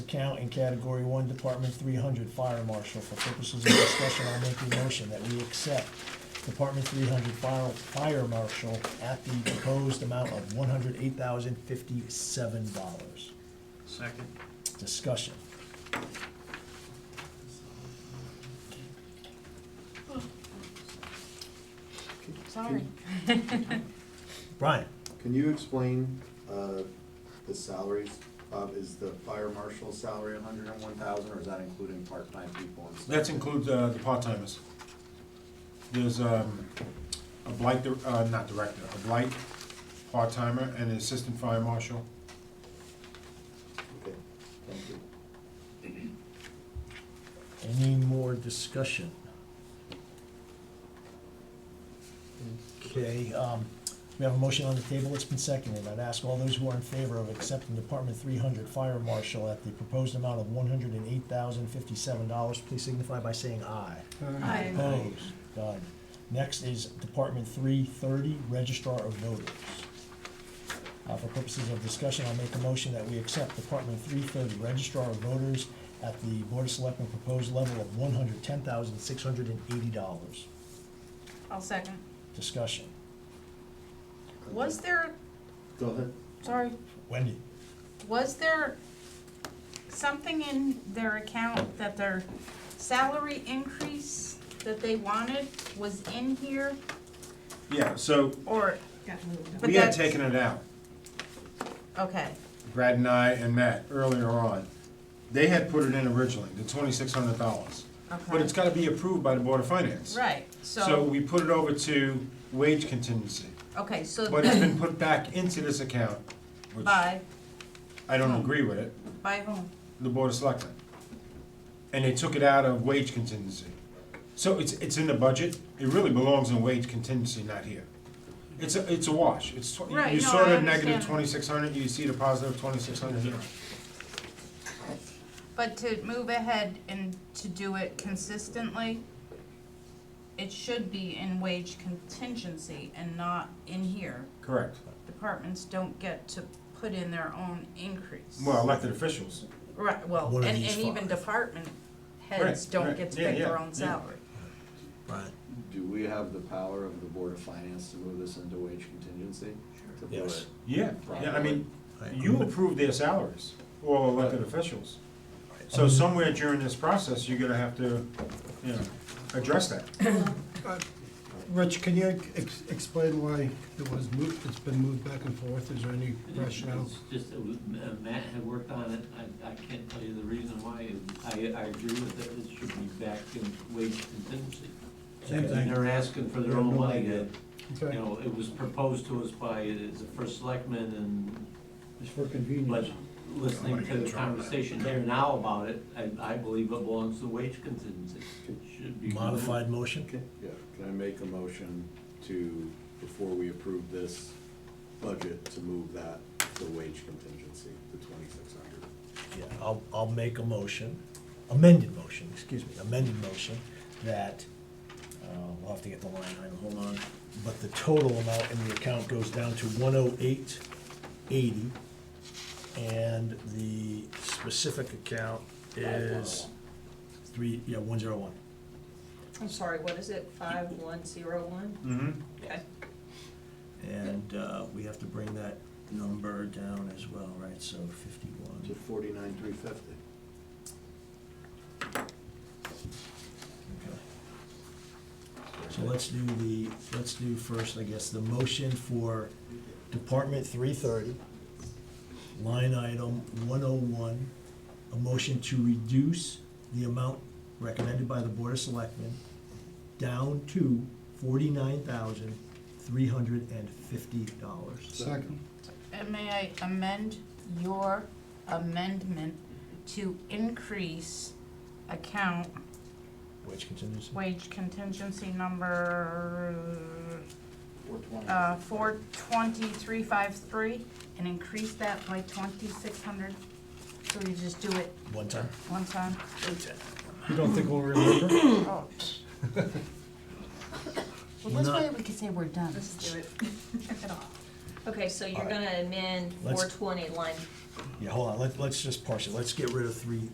account in category one, department three hundred, fire marshal. For purposes of discussion, I'll make the motion that we accept department three hundred fire, fire marshal at the proposed amount of one hundred eight thousand fifty-seven dollars. Second. Discussion. Sorry. Brian? Can you explain uh, the salaries? Bob, is the fire marshal's salary a hundred and one thousand, or is that including part-time people and stuff? That includes uh, the part-timers. There's um, a blight, dir- uh, not director, a blight part-timer and an assistant fire marshal. Okay, thank you. Any more discussion? Okay, um, we have a motion on the table, it's been seconded, I'd ask all those who are in favor of accepting Department three hundred Fire Marshal at the proposed amount of one hundred and eight thousand fifty-seven dollars, please signify by saying aye. Aye. Opposed, done. Next is Department three thirty, Registrar of Voters. Uh, for purposes of discussion, I'll make a motion that we accept Department three thirty, Registrar of Voters at the Board of Selectmen proposed level of one hundred ten thousand six hundred and eighty dollars. I'll second. Discussion. Was there, Go ahead. sorry, Wendy? was there something in their account that their salary increase that they wanted was in here? Yeah, so Or, Got moved up. But we had that's- taken it out, okay, Brad and I and Matt, earlier on. They had put it in originally, the twenty-six hundred dollars. But it's okay. gotta be approved by the Board of Finance. Right, So so, we put it over to wage contingency, okay, so but it's been put back into this account, which I by, don't agree with it. by whom? the Board of Selectmen. And they took it out of wage contingency. So it's, it's in the budget, it really belongs in wage contingency, not here. It's a, it's a wash, it's, tw- Right, you no, saw I the negative understand. twenty-six hundred, you see the positive twenty-six hundred here. But to move ahead and to do it consistently, it should be in wage contingency and not in here. Correct. Departments don't get to put in their own increase. Well, elected officials, Right, well, One and, of and these even five. department heads Right, don't right, get to yeah, pick their yeah, own yeah. salary. Brian. Do we have the power of the Board of Finance to move this into wage contingency? to do Yes. it? yeah, yeah, I mean, you approve their salaries, all elected officials. So somewhere during this process, you're gonna have to, you know, address that. Rich, can you ex- explain why it was moved, it's been moved back and forth, is there any rationale? It's just, that we- uh, Matt had worked on it, I, I can't tell you the reason why, I, I agree with it, it should be back in wage contingency. Same And thing. they're asking for their Yeah, own no money, idea. uh, you Okay. know, it was proposed to us by uh, the first selectman and It's for But convenience. listening to the conversation here now about it, I, I believe it belongs to wage contingency. It Should be. Modified motion? Okay, yeah, can I make a motion to, before we approve this budget, to move that to wage contingency, the twenty-six hundred? Yeah, I'll, I'll make a motion, amended motion, excuse me, amended motion, that, uh, we'll have to get the line item, hold on. But the total amount in the account goes down to one oh eight eighty, and the specific account is three, yeah, one zero one. I'm sorry, what is it, five one zero one? Mm-hmm. Okay. And, uh, we have to bring that number down as well, right, so To fifty-one. forty-nine, three fifty. Okay. So let's do the, let's do first, I guess, the motion for Department three thirty, line item one oh one, a motion to reduce the amount recommended by the Board of Selectmen down to forty-nine thousand, three hundred and fifty dollars. Second. And may I amend your amendment to increase account Which continues. wage contingency number, uh, four twenty-three five three, and increase that by twenty-six hundred? So you just do it One time. one time? You don't think we'll remember? Oh. Well, this way we could say we're done. Let's do it. Okay, so you're All right. gonna amend Let's- four twenty line Yeah, hold on, let's, let's just parse it, let's get rid of three,